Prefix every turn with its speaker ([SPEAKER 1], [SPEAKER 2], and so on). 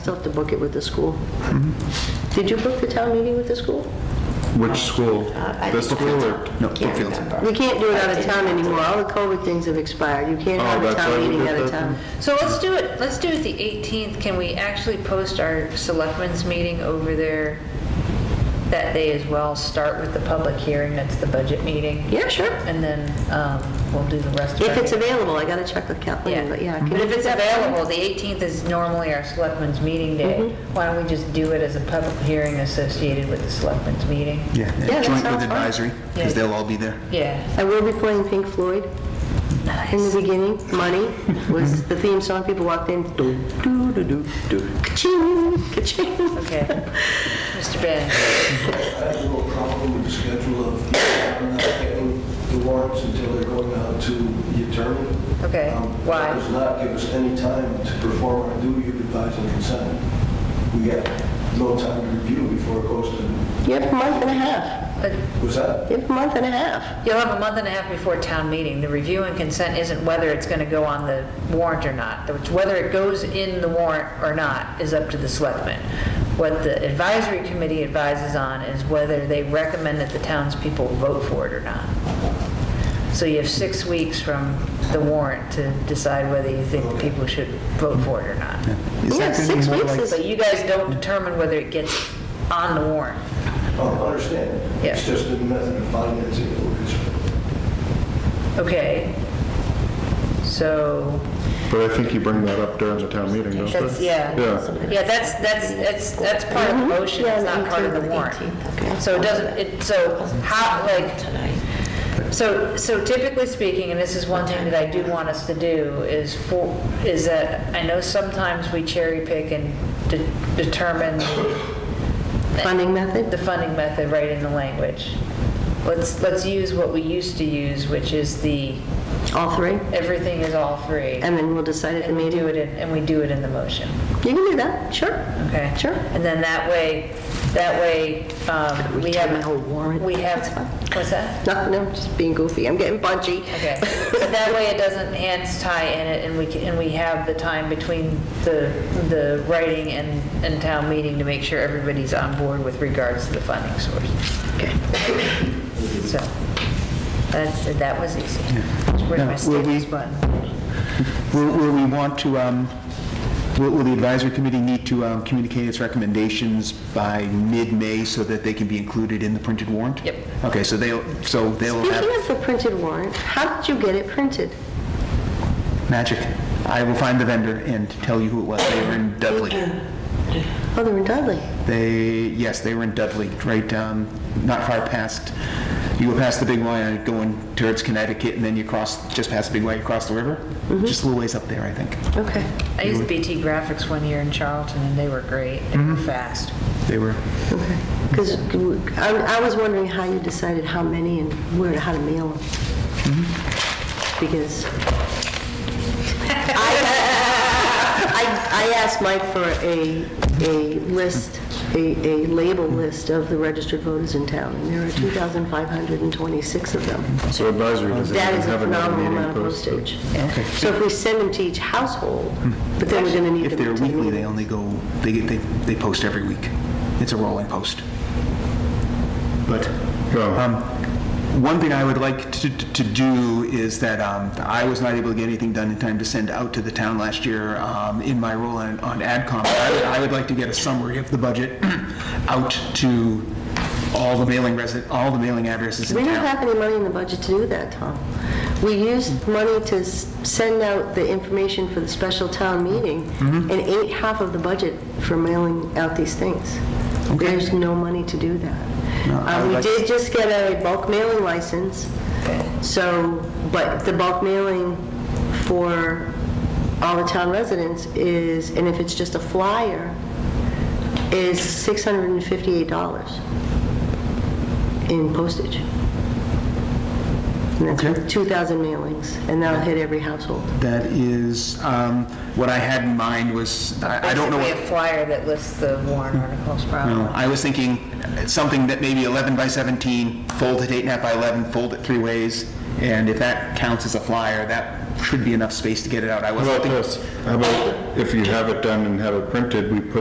[SPEAKER 1] Still have to book it with the school. Did you book the town meeting with the school?
[SPEAKER 2] Which school?
[SPEAKER 3] I
[SPEAKER 2] This
[SPEAKER 3] think
[SPEAKER 2] school
[SPEAKER 3] it's
[SPEAKER 2] or?
[SPEAKER 3] out.
[SPEAKER 2] No,
[SPEAKER 3] Can't
[SPEAKER 2] Brookfield.
[SPEAKER 3] remember.
[SPEAKER 1] We can't do it out
[SPEAKER 3] I
[SPEAKER 1] of
[SPEAKER 3] did
[SPEAKER 1] town
[SPEAKER 3] not do
[SPEAKER 1] anymore. All the COVID things have expired. You can't
[SPEAKER 2] Oh,
[SPEAKER 1] have a
[SPEAKER 2] that's why
[SPEAKER 1] town
[SPEAKER 2] we
[SPEAKER 1] meeting
[SPEAKER 2] did
[SPEAKER 1] out of
[SPEAKER 2] that
[SPEAKER 1] town.
[SPEAKER 3] So
[SPEAKER 4] So let's do it, let's do it the 18th. Can we actually post our selectmen's meeting over there that day as well? Start with the public hearing, that's the budget meeting.
[SPEAKER 1] Yeah, sure.
[SPEAKER 4] And then um, we'll do the rest of it.
[SPEAKER 1] If it's available, I gotta check with Kathleen, but yeah. can
[SPEAKER 4] But
[SPEAKER 1] you
[SPEAKER 4] if
[SPEAKER 1] do
[SPEAKER 4] it's
[SPEAKER 1] that?
[SPEAKER 4] available, the 18th is normally our selectmen's meeting day. Why don't we just do it as a public hearing associated with the selectmen's meeting?
[SPEAKER 3] Yeah,
[SPEAKER 1] that
[SPEAKER 3] joint
[SPEAKER 1] sounds
[SPEAKER 3] with
[SPEAKER 1] fine.
[SPEAKER 3] advisory,
[SPEAKER 4] Yeah.
[SPEAKER 3] because they'll all be there.
[SPEAKER 4] Yeah.
[SPEAKER 1] I will be playing Pink Floyd in
[SPEAKER 4] Nice.
[SPEAKER 1] the beginning. Money was the theme song. People walked in, do, do, do, do, do, ka-ching, ka-ching.
[SPEAKER 4] Okay. Mr. Ben?
[SPEAKER 5] I will probably schedule of, I'm not getting the warrants until they're going out to the attorney.
[SPEAKER 4] Okay,
[SPEAKER 5] Um,
[SPEAKER 4] why?
[SPEAKER 5] That does not give us any time to perform our duty of advising consent. We got no time to review before it goes to,
[SPEAKER 1] You have a month and a half.
[SPEAKER 4] But
[SPEAKER 5] was that?
[SPEAKER 1] You have a month and a half.
[SPEAKER 4] You'll have a month and a half before town meeting. The review and consent isn't whether it's going to go on the warrant or not. It's Whether it goes in the warrant or not is up to the selectmen. What the advisory committee advises on is whether they recommend that the townspeople vote for it or not. So you have six weeks from the warrant to decide whether you think the people should vote for it or not.
[SPEAKER 3] Is
[SPEAKER 1] Yeah,
[SPEAKER 3] that gonna be
[SPEAKER 1] six
[SPEAKER 3] more
[SPEAKER 1] weeks
[SPEAKER 3] like-
[SPEAKER 1] is-
[SPEAKER 4] But you guys don't determine whether it gets on the warrant.
[SPEAKER 5] Oh, I understand.
[SPEAKER 4] Yeah.
[SPEAKER 5] It's just a method of financing it.
[SPEAKER 4] Okay. So
[SPEAKER 2] But I think you bring that up during the town meeting, don't you?
[SPEAKER 4] That's, yeah.
[SPEAKER 2] Yeah.
[SPEAKER 4] Yeah, that's, that's, that's, that's part of the motion,
[SPEAKER 1] Mm-hmm. Yeah,
[SPEAKER 4] it's not part of the
[SPEAKER 1] 18th,
[SPEAKER 4] warrant.
[SPEAKER 1] 18th, okay.
[SPEAKER 4] So it doesn't, it, so how, like, so, so typically speaking, and this is one thing that I do want us to do, is for, is that, I know sometimes we cherry pick and de- determine
[SPEAKER 1] Funding method?
[SPEAKER 4] the funding method right in the language. Let's, let's use what we used to use, which is the,
[SPEAKER 1] All three?
[SPEAKER 4] everything is all three.
[SPEAKER 1] And then we'll decide at the
[SPEAKER 4] And we do
[SPEAKER 1] meeting.
[SPEAKER 4] it, in- and we do it in the motion.
[SPEAKER 1] You can do that, sure.
[SPEAKER 4] Okay.
[SPEAKER 1] Sure.
[SPEAKER 4] And then that way, that way, um, we have.
[SPEAKER 1] Return my whole warrant.
[SPEAKER 4] We have,
[SPEAKER 1] That's fine.
[SPEAKER 4] what's that?
[SPEAKER 1] No, no, just being goofy. I'm getting punchy.
[SPEAKER 4] Okay. But that way it doesn't hands tie in it and we can, and we have the time between the, the writing and, and town meeting to make sure everybody's on board with regards to the funding source.
[SPEAKER 1] Okay.
[SPEAKER 4] So, that's, that was easy. Where's
[SPEAKER 3] Now,
[SPEAKER 4] my
[SPEAKER 3] will
[SPEAKER 4] stickers
[SPEAKER 3] we-
[SPEAKER 4] button?
[SPEAKER 3] Will will we want to, um, will will the advisory committee need to um, communicate its recommendations by mid-May so that they can be included in the printed warrant?
[SPEAKER 4] Yep.
[SPEAKER 3] Okay, so they'll, so they'll
[SPEAKER 1] Speaking
[SPEAKER 3] have
[SPEAKER 1] of the printed warrant, how did you get it printed?
[SPEAKER 3] magic. I will find the vendor and tell you who it was. They were in Dudley.
[SPEAKER 1] Oh, they're in Dudley.
[SPEAKER 3] They, yes, they were in Dudley, right, um, not far past, you go past the big Y going towards Connecticut, and then you cross, just past the big Y, you cross the river? Just a little ways up there, I think.
[SPEAKER 1] Okay.
[SPEAKER 4] I used BT Graphics one year in Charlton and they were great. They
[SPEAKER 1] Mm-hmm.
[SPEAKER 4] were fast.
[SPEAKER 3] They were,
[SPEAKER 1] Okay. Because I I was wondering how you decided how many and where, how to mail them. Because I, I asked Mike for a, a list, a, a label list of the registered voters in town, and there are 2,526 of them.
[SPEAKER 2] So advisory doesn't
[SPEAKER 1] That
[SPEAKER 2] even
[SPEAKER 1] is a
[SPEAKER 2] have another
[SPEAKER 1] phenomenal
[SPEAKER 2] meeting
[SPEAKER 1] amount of
[SPEAKER 2] posted.
[SPEAKER 1] postage. So if we send them to each household, but then we're gonna need
[SPEAKER 3] if
[SPEAKER 1] them
[SPEAKER 3] they're
[SPEAKER 1] to the
[SPEAKER 3] weekly, they
[SPEAKER 1] meeting.
[SPEAKER 3] only go, they, get- they, they post every week. It's a rolling post. But,
[SPEAKER 2] No,
[SPEAKER 3] um, one thing I would like to, to do is that, um, I was not able to get anything done in time to send out to the town last year, um, in my role on, on AdCom. I would, I would like to get a summary of the budget out to all the mailing resident, all the mailing addresses in
[SPEAKER 1] We
[SPEAKER 3] town.
[SPEAKER 1] don't have any money in the budget to do that, Tom. We used money to s- send out the information for the special town meeting
[SPEAKER 3] Mm-hmm.
[SPEAKER 1] and ate half of the budget for mailing out these things. There's no money to do that.
[SPEAKER 3] No, I
[SPEAKER 1] Uh,
[SPEAKER 3] would
[SPEAKER 1] We
[SPEAKER 3] like to-
[SPEAKER 1] did just get a bulk mailing license, so, but the bulk mailing for all the town residents is, and if it's just a flyer, is $658 in postage. And that's
[SPEAKER 3] Okay.
[SPEAKER 1] with 2,000 mailings, and that'll hit every household.
[SPEAKER 3] That is, um, what I had in mind was, I, I don't know what.
[SPEAKER 4] Basically a flyer that lists the warrant articles probably.
[SPEAKER 3] No, I was thinking something that maybe 11 by 17, fold it eight and a half by 11, fold it three ways, And if that counts as a flyer, that should be enough space to get it out. I
[SPEAKER 2] How
[SPEAKER 3] wasn't
[SPEAKER 2] about
[SPEAKER 3] thinking-
[SPEAKER 2] this? How about if you have it done and have it printed, we put